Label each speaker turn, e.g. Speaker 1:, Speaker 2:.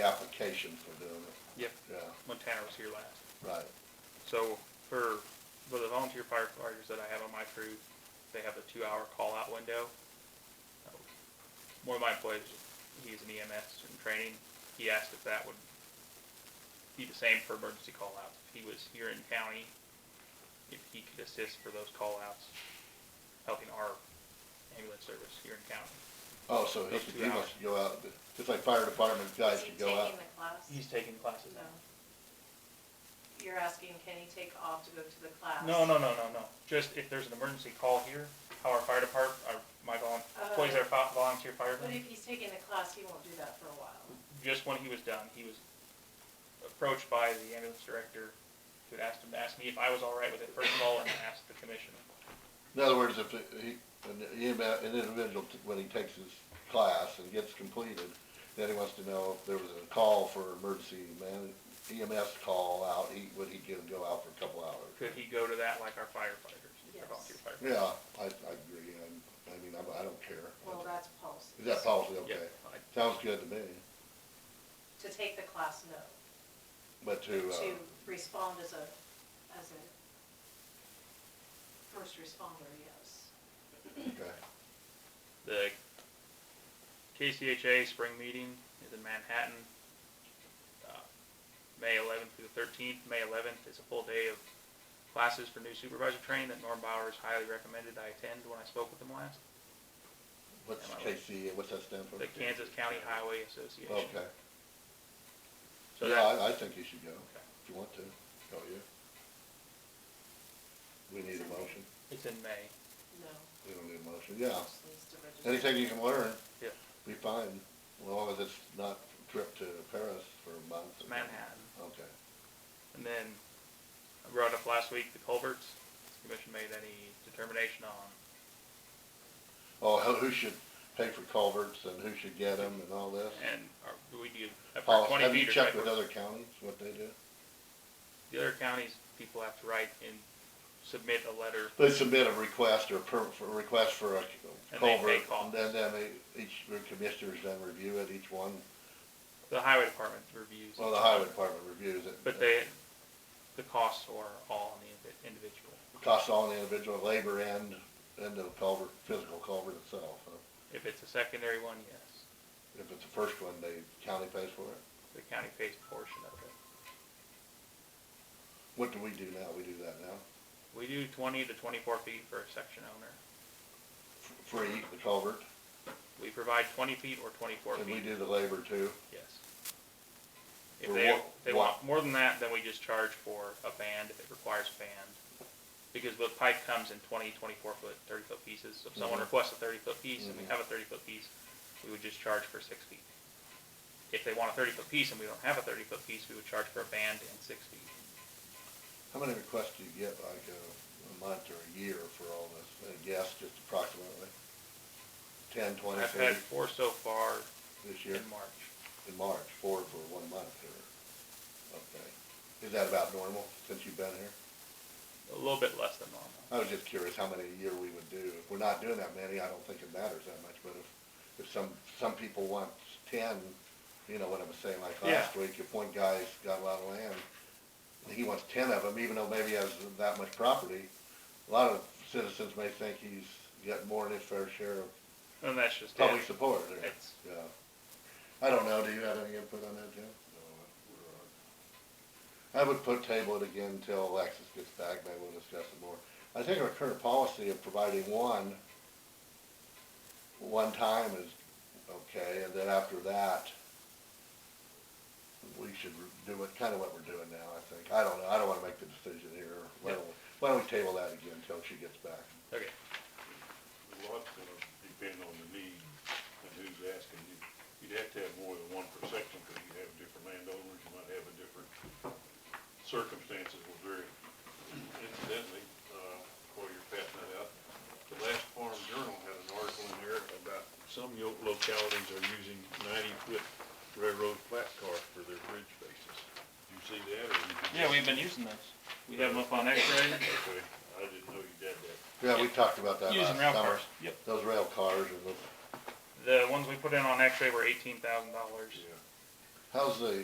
Speaker 1: application for doing it,
Speaker 2: Yep,
Speaker 1: yeah,
Speaker 2: when Tanner was here last.
Speaker 1: right.
Speaker 2: So for, for the volunteer firefighters that I have on my crew, they have a two-hour call-out window. One of my employees, he's an EMS in training, he asked if that would be the same for emergency call-outs. If he was here in county, if he could assist for those call-outs, helping our ambulance service here in county.
Speaker 1: Oh, so he
Speaker 2: Those
Speaker 1: could,
Speaker 2: two
Speaker 1: he
Speaker 2: hours.
Speaker 1: must go out, just like fire department guys
Speaker 3: Is he
Speaker 1: should go out.
Speaker 3: taking the class?
Speaker 2: He's taking classes
Speaker 3: No.
Speaker 2: now.
Speaker 3: You're asking, can he take off to go to the class?
Speaker 2: No, no, no, no, no. Just if there's an emergency call here, how our fire department, our, my volun, employees that are fo- volunteer
Speaker 3: But
Speaker 2: firemen,
Speaker 3: if he's taking the class, he won't do that for a while.
Speaker 2: just when he was done, he was approached by the ambulance director who had asked him, asked me if I was all right with it first of all, and asked the commission.
Speaker 1: In other words, if he, an EMS an individual, t- when he takes his class and gets completed, then he wants to know if there was a call for emergency man, EMS call out, he, would he go, go out for a couple hours?
Speaker 2: Could he go to that like our firefighters,
Speaker 3: Yes.
Speaker 2: our volunteer firefighters?
Speaker 1: Yeah, I, I agree, I, I mean, I, I don't care.
Speaker 3: Well, that's policy.
Speaker 1: Is that policy
Speaker 2: Yeah,
Speaker 1: okay?
Speaker 2: I-
Speaker 1: Sounds good to me,
Speaker 3: To take the class, no.
Speaker 1: but to, uh,
Speaker 3: To respond as a, as a first responder, yes.
Speaker 1: okay,
Speaker 2: The KCHA spring meeting is in Manhattan, uh, May 11th through the 13th. May 11th is a full day of classes for new supervisor training that Norm Bowers highly recommended I attend when I spoke with him last.
Speaker 1: what's
Speaker 2: Am I right?
Speaker 1: KC, what's that stand for?
Speaker 2: The Kansas County Highway Association.
Speaker 1: Okay,
Speaker 2: So
Speaker 1: yeah,
Speaker 2: that,
Speaker 1: I, I think you should go,
Speaker 2: Okay.
Speaker 1: if you want to, go you? We need a motion,
Speaker 2: it's in May.
Speaker 3: No.
Speaker 1: we don't need a motion, yeah,
Speaker 3: Just needs to register.
Speaker 1: anything you can learn,
Speaker 2: Yeah.
Speaker 1: be fine, as long as it's not a trip to Paris for a month. or-
Speaker 2: Manhattan.
Speaker 1: Okay,
Speaker 2: And then I brought up last week the culverts. The commission made any determination on
Speaker 1: oh, who, who should pay for culverts and who should get them and all this?
Speaker 2: and are, do we do after
Speaker 1: Paul,
Speaker 2: 20
Speaker 1: have you
Speaker 2: meters?
Speaker 1: checked
Speaker 2: right,
Speaker 1: with
Speaker 2: we're-
Speaker 1: other counties, what they do?
Speaker 2: The other counties, people have to write and submit a letter.
Speaker 1: They submit a request or per, for a request for a
Speaker 2: And they pay
Speaker 1: culvert, and
Speaker 2: costs.
Speaker 1: then, then they- each, the commissioners then review it, each one,
Speaker 2: The highway department reviews.
Speaker 1: well, the highway department reviews it.
Speaker 2: But they, the costs are all on the invi- individual.
Speaker 1: Costs on the individual labor and, and the culvert, physical culvert itself, huh?
Speaker 2: If it's a secondary one, yes,
Speaker 1: If it's the first one, the county pays for it.
Speaker 2: the county pays a portion of it.
Speaker 1: What do we do now? We do that now?
Speaker 2: We do twenty to twenty-four feet for a section owner.
Speaker 1: F- Free, the culvert,
Speaker 2: We provide twenty feet or twenty-four
Speaker 1: and we
Speaker 2: feet,
Speaker 1: do the labor too.
Speaker 2: yes. If
Speaker 1: For
Speaker 2: they,
Speaker 1: what-
Speaker 2: they
Speaker 1: what?
Speaker 2: want more than that, then we just charge for a band if it requires a band. Because the pipe comes in twenty, twenty-four foot, thirty-foot pieces, so if someone
Speaker 1: Mhm.
Speaker 2: requests a thirty-foot piece and we
Speaker 1: Mhm.
Speaker 2: have a thirty-foot piece, we would just charge for six feet. If they want a thirty-foot piece and we don't have a thirty-foot piece, we would charge for a band and six feet.
Speaker 1: How many requests do you get, like uh, a, a month or a year for all this? I guess just approximately ten, twenty,
Speaker 2: I've had
Speaker 1: thirty
Speaker 2: four so far
Speaker 1: this year?
Speaker 2: in March.
Speaker 1: in March, four for one month or, okay. Is that about normal since you've been here?
Speaker 2: A little bit less than normal.
Speaker 1: I was just curious how many a year we would do. If we're not doing that many, I don't think it matters that much, but if, if some, some people want ten, you know what I'm saying, like
Speaker 2: Yeah.
Speaker 1: last week, if one guy's got a lot of land, and he wants ten of them, even though maybe he has that much property, a lot of citizens may think he's got more than his fair share of
Speaker 2: And that's just it.
Speaker 1: public support there.
Speaker 2: It's-
Speaker 1: Yeah. I don't know, do you have any input on that, Jim? I would put table it again until Alexis gets back, maybe we'll discuss it more. I think our current policy of providing one, one time is okay, and then after that, we should do it, kinda what we're doing now, I think. I don't know, I don't wanna make the decision here. Why don't, we- why don't we table that again until she gets back?
Speaker 2: Okay,
Speaker 4: A lot's gonna depend on the need and who's asking you. You'd have to have more than one per section, because you have different landowners, you might have a different, circumstances will vary. Incidentally, uh, while you're passing that out, the last Farm Journal had an article in there about some yo- localities are using ninety-foot railroad flat car for their bridge faces. Did you see that, or? you just-
Speaker 2: Yeah, we've been using those. We have them up on X-ray,
Speaker 4: Okay, I didn't know you did that.
Speaker 1: Yeah, we talked about that last
Speaker 2: using
Speaker 1: summer.
Speaker 2: rail cars. Yep.
Speaker 1: Those rail cars and the
Speaker 2: The ones we put in on X-ray were eighteen thousand dollars.
Speaker 4: Yeah.
Speaker 1: How's the